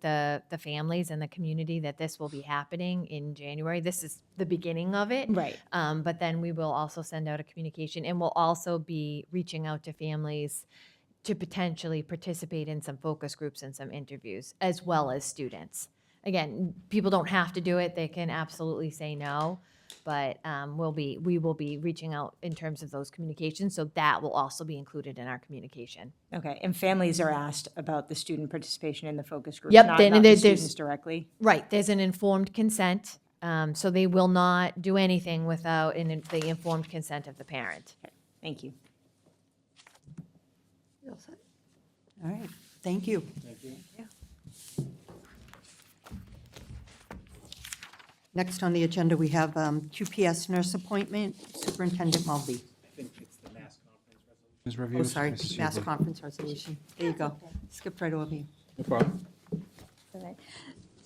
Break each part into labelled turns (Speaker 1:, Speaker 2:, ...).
Speaker 1: the, the families and the community that this will be happening in January. This is the beginning of it.
Speaker 2: Right.
Speaker 1: Um, but then we will also send out a communication and we'll also be reaching out to families to potentially participate in some focus groups and some interviews, as well as students. Again, people don't have to do it, they can absolutely say no, but um, we'll be, we will be reaching out in terms of those communications, so that will also be included in our communication.
Speaker 2: Okay, and families are asked about the student participation in the focus group?
Speaker 1: Yep,
Speaker 2: not-
Speaker 1: then
Speaker 2: Not the
Speaker 1: there's- there's-
Speaker 2: students directly?
Speaker 1: Right, there's an informed consent, um, so they will not do anything without an in- the informed consent of the parent.
Speaker 2: Thank you.
Speaker 3: All right, thank you. Next on the agenda, we have um, QPS nurse appointment, Superintendent Mulvey.
Speaker 4: Ms. Revere.
Speaker 3: Oh, sorry,
Speaker 4: Mrs.
Speaker 3: mass
Speaker 4: Hubley.
Speaker 3: conference resolution. There you go. Skipped right over you.
Speaker 4: No problem.
Speaker 5: All right.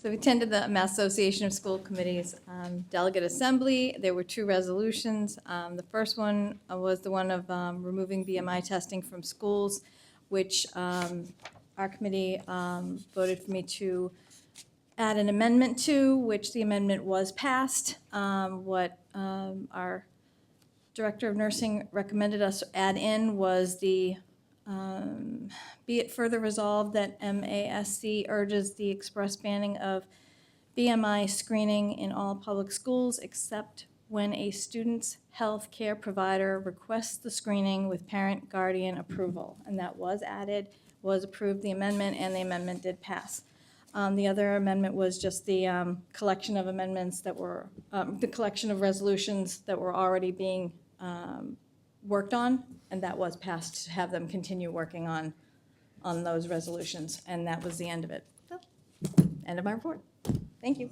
Speaker 5: So we attended the Mass Association of School Committees um, Delegate Assembly. There were two resolutions. Um, The first one uh, was the one of um, removing BMI testing from schools, which um, our committee um, voted for me to add an amendment to, which the amendment was passed. Um, What um, our Director of Nursing recommended us add in was the be it further resolved that MASC urges the express banning of BMI screening in all public schools except when a student's health care provider requests the screening with parent guardian approval. And that was added, was approved, the amendment, and the amendment did pass. Um, The other amendment was just the um, collection of amendments that were, um, the collection of resolutions that were already being um, worked on, and that was passed to have them continue working on on those resolutions, and that was the end of it. So, End of my report. Thank you.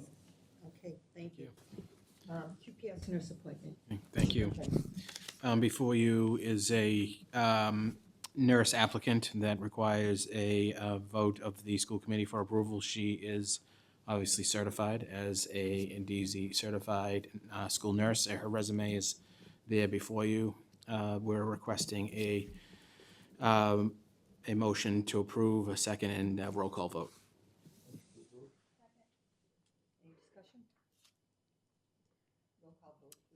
Speaker 3: Okay, thank you. Um, QPS nurse appointment.
Speaker 4: Thank you. Um, Before you is a um, nurse applicant that requires a uh, vote of the school committee for approval. She is obviously certified as a NDZ certified uh, school nurse. Her resume is there before you. Uh, We're requesting a, um, a motion to approve, a second, and a roll call vote.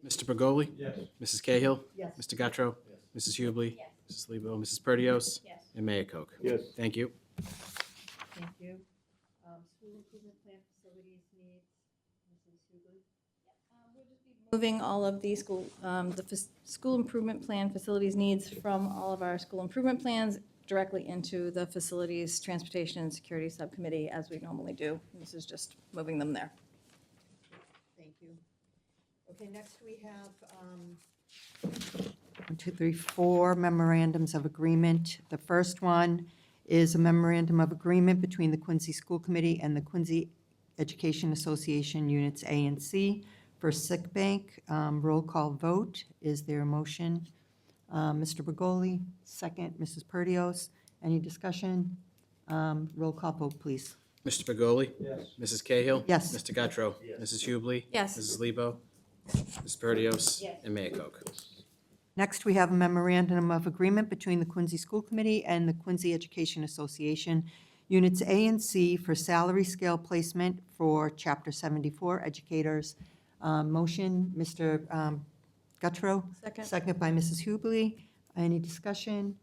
Speaker 4: Mr. Pergoli? Yes. Mrs. Cahill? Yes. Mr. Guttrow? Yes. Mrs. Hubley? Yes. Mrs. Lebo? Mrs. Perdios? Yes. And Mayor Koch. Yes. Thank you.
Speaker 3: Thank you. Um, School improvement plan facilities needs, Mrs. Hubley.
Speaker 5: um, Moving all of the school, um, the fac- school improvement plan facilities needs from all of our school improvement plans directly into the facilities, transportation, and security subcommittee as we normally do. This is just moving them there.
Speaker 3: Thank you. Okay, next we have, um, one, two, three, four memorandums of agreement. The first one is a memorandum of agreement between the Quincy School Committee and the Quincy Education Association Units A and C for sick bank. Um, Roll call vote. Is there a motion? Uh, Mr. Bergoli, second. Mrs. Perdios, any discussion? Um, Roll call vote, please.
Speaker 4: Mr. Pergoli? Yes. Mrs. Cahill?
Speaker 3: Yes.
Speaker 4: Mr. Guttrow? Yes. Mrs. Hubley?
Speaker 5: Yes.
Speaker 4: Mrs. Lebo? Mrs. Perdios? Yes. And Mayor Koch.
Speaker 3: Next, we have a memorandum of agreement between the Quincy School Committee and the Quincy Education Association, Units A and C for salary scale placement for Chapter 74 educators. Uh, Motion, Mr. um, Guttrow.
Speaker 5: Second.
Speaker 3: Second by Mrs. Hubley. Any discussion?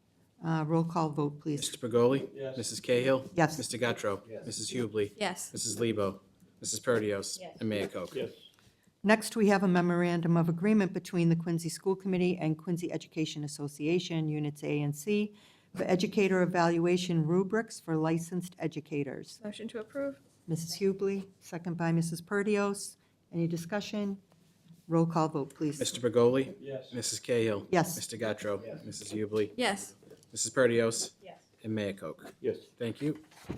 Speaker 3: Uh, Roll call vote, please.
Speaker 4: Mr. Pergoli? Yes. Mrs. Cahill?
Speaker 3: Yes.
Speaker 4: Mr. Guttrow? Yes. Mrs. Hubley?
Speaker 5: Yes.
Speaker 4: Mrs. Lebo? Mrs. Perdios? Yes. And Mayor Koch. Yes.
Speaker 3: Next, we have a memorandum of agreement between the Quincy School Committee and Quincy Education Association, Units A and C, for educator evaluation rubrics for licensed educators.
Speaker 5: Motion to approve?
Speaker 3: Mrs. Hubley, second by Mrs. Perdios. Any discussion? Roll call vote, please.
Speaker 4: Mr. Pergoli? Yes. Mrs. Cahill?
Speaker 3: Yes.
Speaker 4: Mr. Guttrow? Yes. Mrs. Hubley?
Speaker 5: Yes.
Speaker 4: Mrs. Perdios? Yes. And Mayor Koch. Yes. Thank you.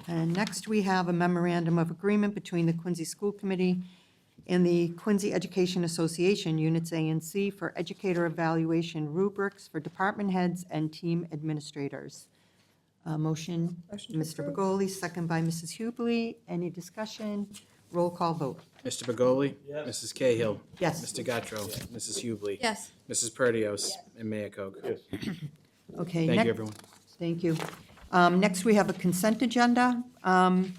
Speaker 3: And next, we have a memorandum of agreement between the Quincy School Committee and the Quincy Education Association, Units A and C, for educator evaluation rubrics for department heads and team administrators. Uh, Motion,
Speaker 5: Motion to
Speaker 3: Mr.
Speaker 5: approve.
Speaker 3: Begoli, second by Mrs. Hubley. Any discussion? Roll call vote.
Speaker 4: Mr. Begoli? Yes. Mrs. Cahill?
Speaker 3: Yes.
Speaker 4: Mr. Guttrow? Mrs. Hubley?
Speaker 5: Yes.
Speaker 4: Mrs. Perdios? And Mayor Koch.
Speaker 3: Okay.
Speaker 4: Thank
Speaker 3: next-
Speaker 4: you, everyone.
Speaker 3: Thank you. Um, Next, we have a consent agenda. Um,